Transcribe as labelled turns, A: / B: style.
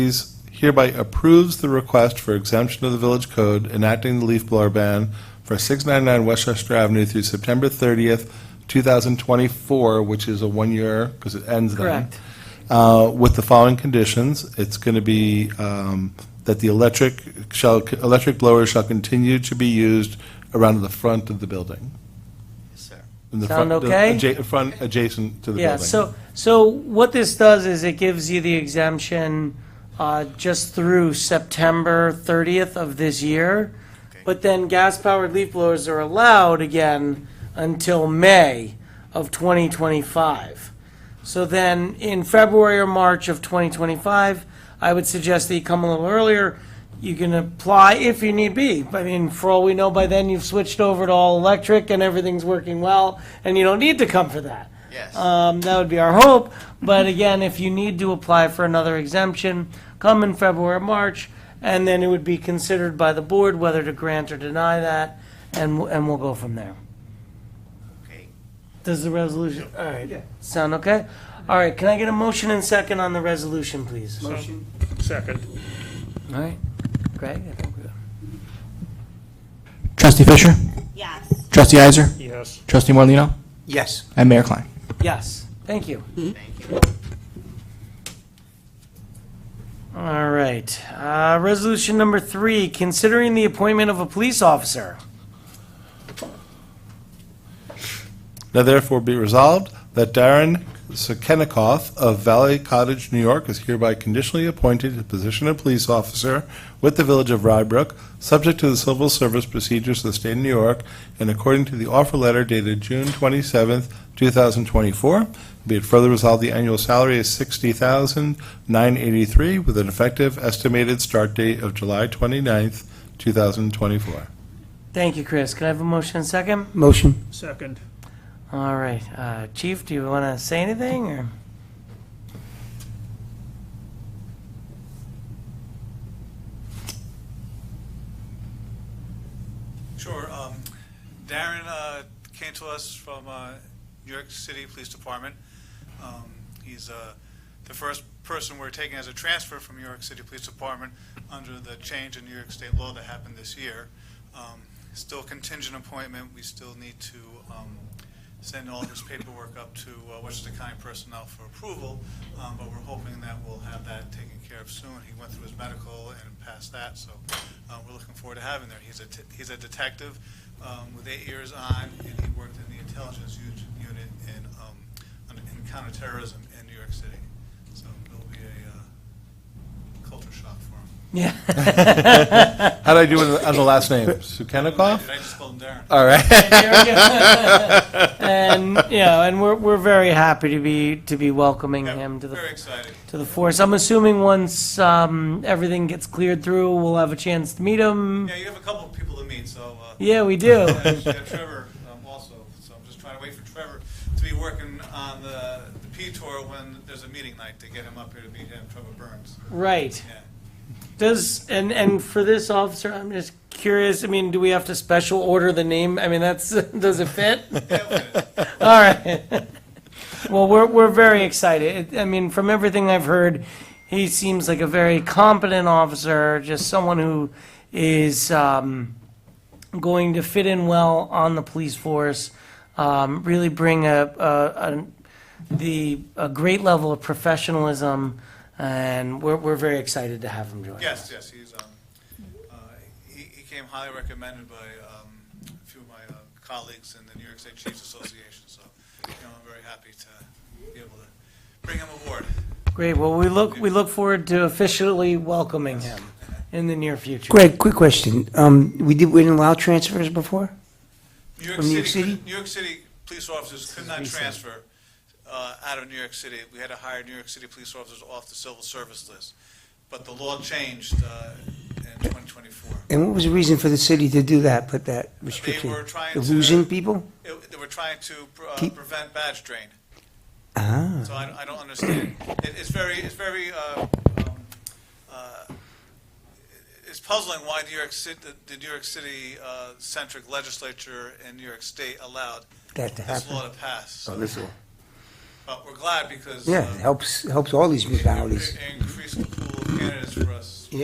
A: Committees hereby approves the request for exemption of the village code enacting the leaf blower ban for 699 Westchester Avenue through September 30th, 2024, which is a one-year, because it ends then.
B: Correct.
A: Uh, With the following conditions, it's going to be um, that the electric shall, electric blower shall continue to be used around the front of the building. In the
B: Sound
A: front- the
B: okay?
A: adja- Front adjacent to the building.
B: Yeah, so, so what this does is it gives you the exemption uh, just through September 30th of this year, but then gas-powered leaf blowers are allowed again until May of 2025. So then, in February or March of 2025, I would suggest that you come a little earlier. You can apply if you need be. I mean, for all we know, by then, you've switched over to all electric and everything's working well, and you don't need to come for that.
C: Yes.
B: Um, that would be our hope, but again, if you need to apply for another exemption, come in February or March, and then it would be considered by the board whether to grant or deny that, and, w- and we'll go from there.
C: Okay.
B: Does the resolution, all right, sound okay? All right, can I get a motion and second on the resolution, please? All
D: Second.
B: right, Greg, I think we're.
E: Trustee Fisher?
F: Yes.
E: Trustee Heiser?
D: Yes.
E: Trustee Morlino,
C: Yes.
E: And Mayor Klein.
B: Yes, thank you.
C: Thank you.
B: All right, uh, resolution number three, considering the appointment of a police officer.
A: Now therefore be resolved that Darren Sekenikoff of Valley Cottage, New York is hereby conditionally appointed to the position of police officer with the Village of Rybrook, subject to the civil service procedures of the state of New York and according to the offer letter dated June 27th, 2024. Be it further resolved, the annual salary is 60983 with an effective estimated start date of July 29th, 2024.
B: Thank you, Chris. Can I have a motion and second?
E: Motion.
D: Second.
B: All right, uh, Chief, do you want to say anything, or?
G: Sure. Um, Darren uh, came to us from uh, New York City Police Department. Um, he's uh, the first person we're taking as a transfer from New York City Police Department under the change in New York State law that happened this year. Um, still contingent appointment. We still need to um, send all this paperwork up to uh, Westchester County Personnel for approval, um, but we're hoping that we'll have that taken care of soon. He went through his medical and passed that, so uh, we're looking forward to having him there. He's a, t- he's a detective um, with eight years on, and he worked in the intelligence u- unit in, um, on- in counterterrorism in New York City. So it'll be a uh, culture shock for him.
B: Yeah.
A: How do I do it on the last name? Sekenikoff?
G: Did I just spell him Darren?
A: All right.
B: And, you know, and we're, we're very happy to be, to be welcoming
G: Yeah,
B: him to the,
G: Very excited.
B: to the force. I'm assuming once, um, everything gets cleared through, we'll have a chance to meet him.
G: Yeah, you have a couple of people to meet, so. uh,
B: Yeah, we do.
G: Yeah, she got Trevor um, also, so I'm just trying to wait for Trevor to be working on the, the P tour when there's a meeting night to get him up here to meet him, Trevor Burns.
B: Right.
G: Yeah.
B: Does, and, and for this officer, I'm just curious, I mean, do we have to special order the name? I mean, that's, does it fit? All right. Well, we're, we're very excited. It- I mean, from everything I've heard, he seems like a very competent officer, just someone who is um, going to fit in well on the police force, um, really bring a, a, a, the, a great level of professionalism, and we're, we're very excited to have him join. us.
G: Yes, yes, he's, um, uh, he, he came highly recommended by, um, a few of my uh, colleagues in the New York State Chiefs Association, so, you know, I'm very happy to be able to bring him aboard.
B: Great, well, we look, we look forward to officially welcoming him in the near future.
H: Greg, quick question. Um, we did, we didn't allow transfers before?
G: New York
H: From New York
G: City,
H: City?
G: New York City police officers could not transfer uh, out of New York City. We had to hire New York City police officers off the civil service list. But the law changed uh, in 2024.
H: And what was the reason for the city to do that, put that restriction?
G: were trying to-
H: Losing people?
G: It- They were trying to uh,
H: Keep-
G: prevent badge drain.
H: Ah,
G: So I, I don't understand. It, it's very, it's very, uh, um, uh, it's puzzling why New York City, the New York City uh, centric legislature in New York State allowed
H: that to
G: this law
H: happen.
G: to pass.
A: this
G: But we're glad because.
H: Yeah,
G: uh,
H: it helps, helps all these
G: It
H: municipalities.
G: Increase the pool of candidates for us.